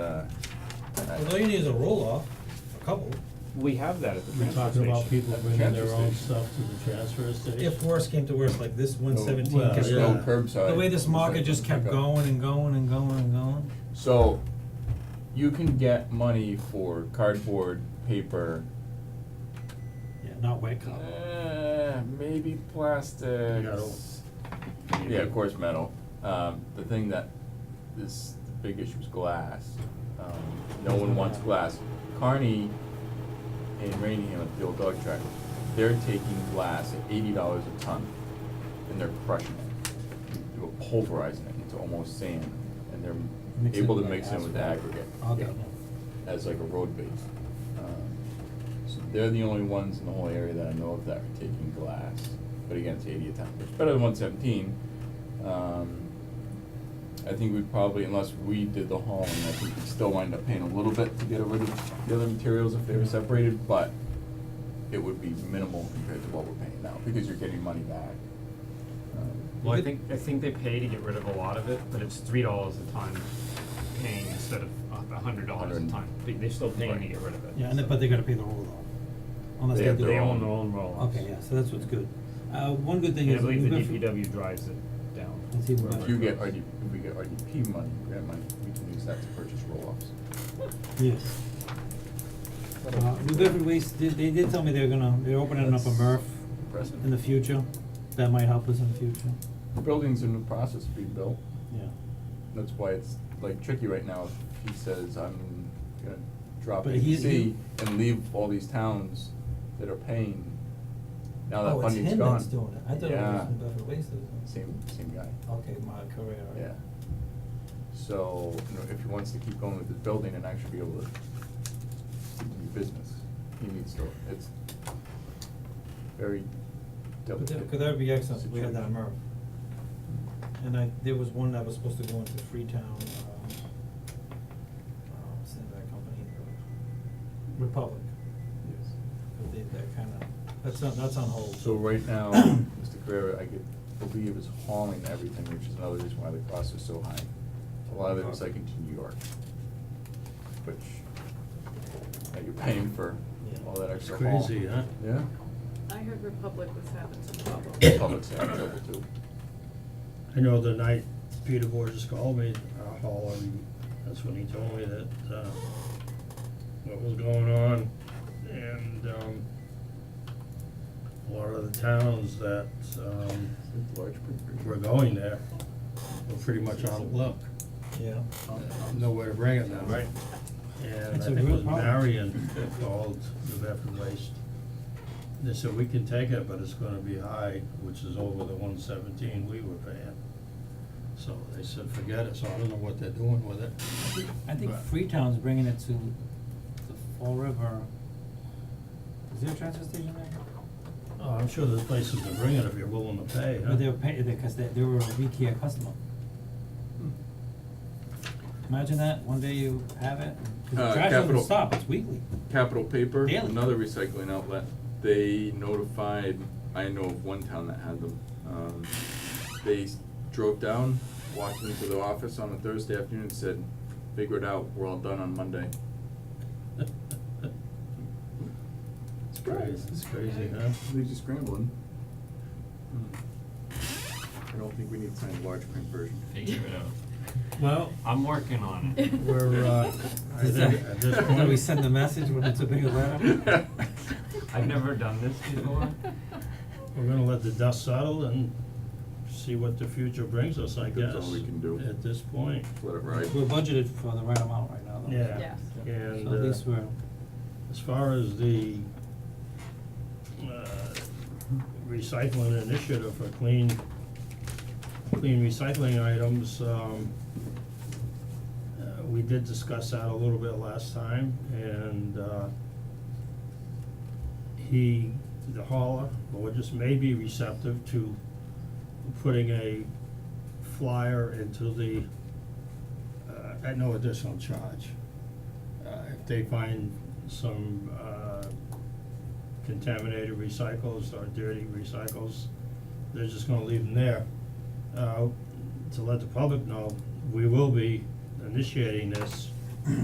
Well, all you need is a roll-off, a couple, We have that at the We're transfer talking station. about people At the bringing transfer their own station. stuff to the transfer station. if worse came to worse, like Oh, this one seventeen well, kept yeah. going. No curbside. The way this market just kept Pickup. going and going and going and going. So, you can get money for cardboard, paper, Yeah, not wet eh, maybe Metal. plastics. Yeah, of course, metal. Um, the thing that is the big issue is glass. Um, no one wants glass. Carney in Rainham at the old dog track, they're taking glass at eighty dollars a ton, and they're crushing it. They're pulverizing it into almost sand, and Mix they're it able to with mix in with asphalt. aggregate. Okay. Yeah, As like a road base. Um, So they're the only ones in the whole area that I know of that are taking glass, but again, it's eighty a ton, which is better than one seventeen. Um, I think we'd probably, unless we did the hauling, I think we'd still wind up paying a little bit to get rid of the other materials if they were separated, but it would be minimal compared to what we're paying now, because you're getting money back. Um, Well, I think, I think they pay to get rid of a lot of it, but it's three dollars a ton paying instead of a hundred dollars a Hundred. ton. They, they're still paying to Right. get rid of it. Yeah, and they, but they gotta pay the roll-off, unless They they have do. their They own- own their own roll-offs. Okay, yeah, so that's what's good. Uh, one good thing And is. I believe the we've got- DPW drives it down. It's even wherever better. If you it get goes. RD, if we get RDP money, grant money, we can use that to purchase roll-offs. Yes. Uh, New Bedford Waste, they, they did tell me they're gonna, they're opening up a That's MRF impressive. in the future, that might help us in the future, Buildings in the process of being built, yeah. that's why it's like tricky right now, If he says, I'm gonna drop But he- ABC he- and leave all these towns that are paying, now that Oh, it's funding's him gone. that's doing it, I thought it Yeah. was New Bedford Waste that was doing it. Same, same guy. Okay, my career, right? Yeah. So, you know, if he wants to keep going with his building and actually be able to do business, he needs to, it's very But delicate. that, could that be excellent, if we had that situation. MRF. And I, there was one that was supposed to go into Freetown, um, uh, what's the name of that company, uh, Republic, Yes. but they, that kinda, that's not, that's on hold. So right now, Mr. Carrera, I could believe is hauling everything, which is another reason why the cost is so high. A lot of it was like into New York, which, that you're paying for all that extra haul. Crazy, huh? Yeah. I heard Republic was having some problems. Public's having trouble too. I know the night Peter Borges called me, uh, Hall, and that's when he told me that, uh, what was going on. And, um, a lot of the towns that, um, Large printers. were going there were pretty much out of luck. Yeah. nowhere to bring it now. Right. And It's I a think it real was problem. Marion that called the Bedford Waste. They said, we can take it, but it's gonna be high, which is over the one seventeen we were paying. So they said, forget it, so I don't know what they're doing with it. I think But- Freetown's bringing it to the Fall River, is there a transfer station there? Oh, I'm sure there's places to bring it if you're willing to pay, huh? But they were paying, because they, they were a Rekia customer. Imagine that, one day you have it, 'cause the Uh, trash doesn't Capital- stop, it's weekly. Capital Paper, Daily. another recycling outlet, they notified, I know of one town that had them. Um, they s- drove down, walked into the office on a Thursday afternoon and said, figure it out, we're all done on Monday. It's crazy, it's crazy, huh? They're just scrambling. I don't think we need to sign a large print version. Figure it out. Well, I'm working on it. we're, uh, I Is think that- at this Did point. we send the message when it's a bigger letter? I've never done this before. We're gonna let the dust settle and see what the future brings us, I guess. That's all we can do. At this point. Let it ride. We're budgeted for the right amount right now, though. Yeah, Yeah. and So at least uh, we're, as far as the uh, recycling initiative for clean, clean recycling items, um, uh, we did discuss that a little bit last time, and uh, he, the hauler, or just may be receptive to putting a flyer into the, uh, at no additional charge. Uh, if they find some, uh, contaminated recycles or dirty recycles, they're just gonna leave them there. Uh, to let the public know, we will be initiating this